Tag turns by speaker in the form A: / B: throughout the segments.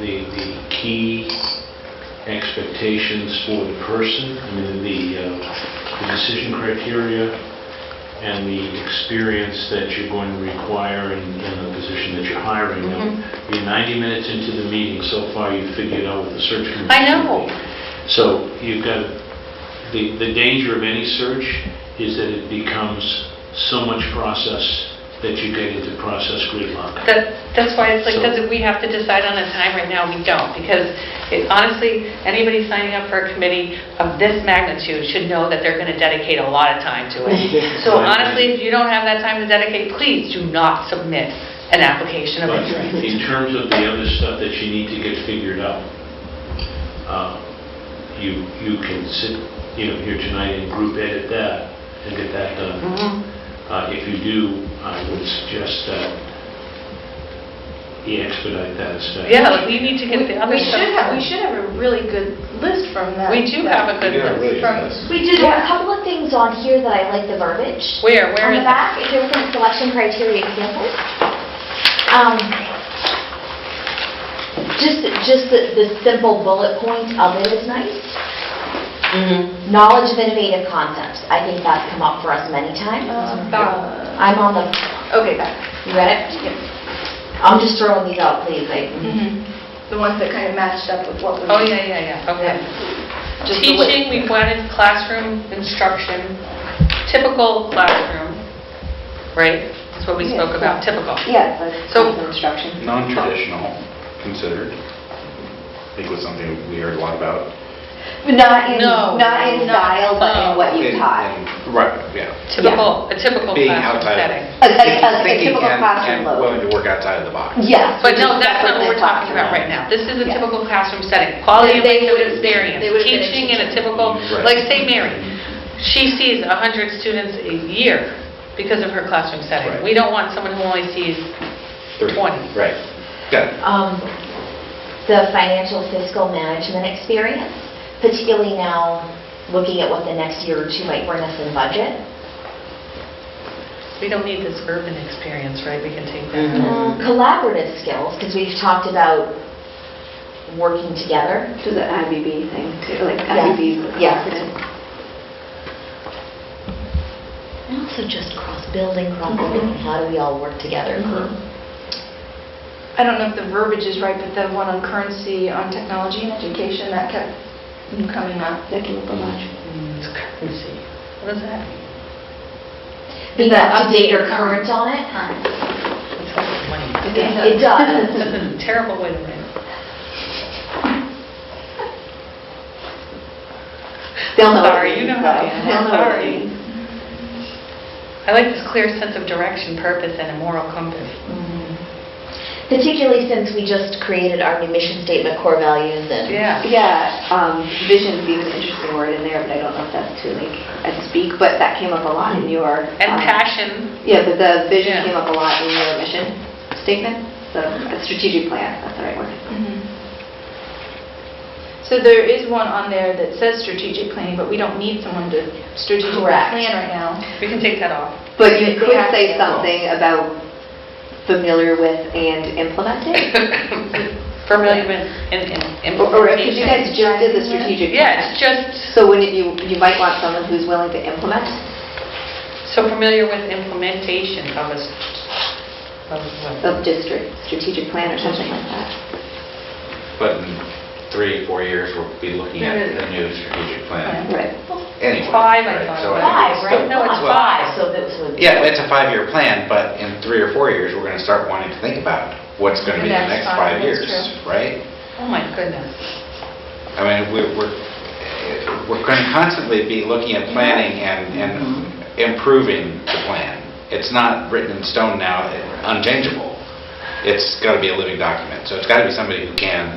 A: the, the key expectations for the person, I mean, the, uh, the decision criteria and the experience that you're going to require in, in the position that you're hiring. Now,
B: Mhm.
A: You're 90 minutes into the meeting, so far you've figured out what the search committee...
B: I know.
A: will be. So you've got, the, the danger of any search is that it becomes so much process that you get into process gridlock.
B: That, that's why it's like,
A: So-
B: does it, we have to decide on a time right now, we don't, because it- honestly, anybody signing up for a committee of this magnitude should know that they're gonna dedicate a lot of time to it. So
A: Right.
B: honestly, if you don't have that time to dedicate, please do not submit an application of
A: But
B: interest.
A: in terms of the other stuff that you need to get figured out, uh, you, you can sit, you know, here tonight and group edit that and get that done.
B: Mhm.
A: Uh, If you do, I would suggest that you expedite that as fast.
B: Yeah, like, we need to get the other
C: We should have, we
B: stuff.
C: should have a really good list from that.
B: We do have a good
D: Yeah,
B: list.
D: really.
C: From,
E: We did
C: Yeah.
E: a couple of things on here that I like the verbiage.
B: Where, where
E: On
B: is
E: the
B: it?
E: back, if you look at selection criteria examples, um, just, just the, the simple bullet point of it is nice.
B: Mm-hmm.
E: Knowledge of innovative concepts, I think that's come up for us many times.
B: Uh-huh.
C: um,
E: I'm on the,
C: okay, that,
E: you read it? I'm just throwing these out, please, like,
B: Mm-hmm.
C: the ones that kind of matched up with what we.
B: Oh, yeah, yeah, yeah, okay.
C: Just the way-
B: Teaching, we wanted classroom instruction, typical classroom, right? That's what we spoke about, typical.
C: Yeah,
B: So-
C: the instruction.
D: Non-traditional considered, I think was something we heard a lot about.
F: But Not in,
B: No.
F: not in style, but in what you
D: And-
F: taught.
D: and- Right, yeah.
B: Typical, a typical
D: Being
B: classroom
D: outside of-
B: setting.
F: A- a- a- a
D: Thinking
F: typical
D: and-
F: classroom
D: And
F: load.
D: willing to work outside of the box.
F: Yes.
B: But no,
F: which is
B: that's not what we're talking about right now. This is a typical classroom setting, quality of
C: They- they
B: language
C: would've-
B: experience,
C: they would've been a
B: teaching in a
C: teacher.
B: typical,
D: Right.
B: like St. Mary. She sees 100 students a year because of her classroom setting.
D: Right.
B: We don't want someone who only sees
D: Three.
B: 20.
D: Right, yeah.
E: um, the financial fiscal management experience, particularly now, looking at what the next year or two might bring us in budget.
B: We don't need this urban experience, right? We can take that.
F: Mm-hmm.
E: Mm-hmm. Collaborative skills, because we've talked about working together.
F: To the IBB thing too, like
E: Yes, yes. And also just cross-building, cross-building, how do we all work together? Mm-hmm.
C: I don't know if the verbiage is right, but the one on currency, on technology and education, that kept coming up.
F: That came up a lot.
B: It's currency. What is that?
E: Being
C: Is that
E: up to date or
C: updated?
E: current on it.
B: It's like money.
E: It does.
B: That's a terrible way to write it.
F: They'll know. what it
B: Sorry, you
F: means,
B: know how I
F: though.
B: am.
F: They'll know what it
B: Sorry.
F: means.
B: I like this clear sense of direction, purpose, and a moral compass.
E: Mm-hmm. Particularly since we just created our new mission statement, core values, and
B: Yeah.
F: Yeah, um, vision being an interesting word in there, but I don't know if that's too like, I speak, but that came up a lot in your.
B: And
F: um,
B: passion.
F: Yeah, but the
B: Yeah.
F: vision came up a lot in your mission statement, the the strategic plan, that's the right word.
C: Mhm. So there is one on there that says strategic planning, but we don't need someone to strategically
E: Correct.
C: plan right now.
B: We can take that off.
F: But you
C: They
F: could
C: have
F: say
C: to.
F: something about familiar with and implementing?
B: Familiar with and and
F: Or or if you guys
B: implementation.
F: just did the strategic
B: Yeah, it's
F: plan.
B: just,
F: So wouldn't you, you might want someone who's willing to implement?
B: so familiar with implementation of a, s- of what?
F: Of district strategic plan or something like that.
D: But in three, four years, we'll be looking at a new strategic plan.
F: Right.
D: Anyway,
B: Five, I
D: right,
B: thought.
D: so I think it's
E: five,
D: still-
E: right?
B: No, it's
D: well,
B: five.
E: So that was.
D: Yeah, it's a five-year plan, but in three or four years, we're going to start wanting to think about what's going to
C: The
D: be the
C: next
D: next
C: five,
D: five
C: that's
D: years,
C: true.
D: right?
B: Oh, my goodness.
D: I mean, we're, we're, eh, we're going to constantly be looking at planning and, and
F: Mm-hmm.
D: improving the plan. It's not written in stone now, eh, unchangeable. It's got to be a living document, so it's got to be somebody who can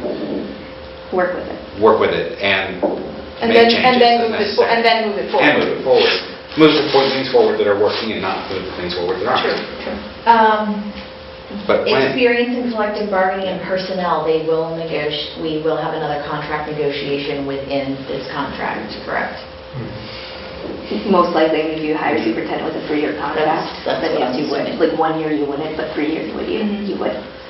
F: Work with it.
D: work with it and
F: And
D: make
F: then-
D: changes
F: and then
D: as
F: move it for-
D: necessary.
F: and then move it forward.
D: And move it forward. Move the for- things forward that are working and not move the things forward that aren't.
F: true.
E: Um,
D: But plan.
E: Experience in collective bargaining and personnel, they will negotiate, we will have another contract negotiation within this contract, correct?
F: Most likely, if you hire superintendent with a three-year contract,
E: That's- that's
F: then
E: what Mm-hmm.
F: yes,
E: I'm
F: you would.
E: assuming.
F: Like, one year you wouldn't, but three years would you,
C: Mhm.
F: you would.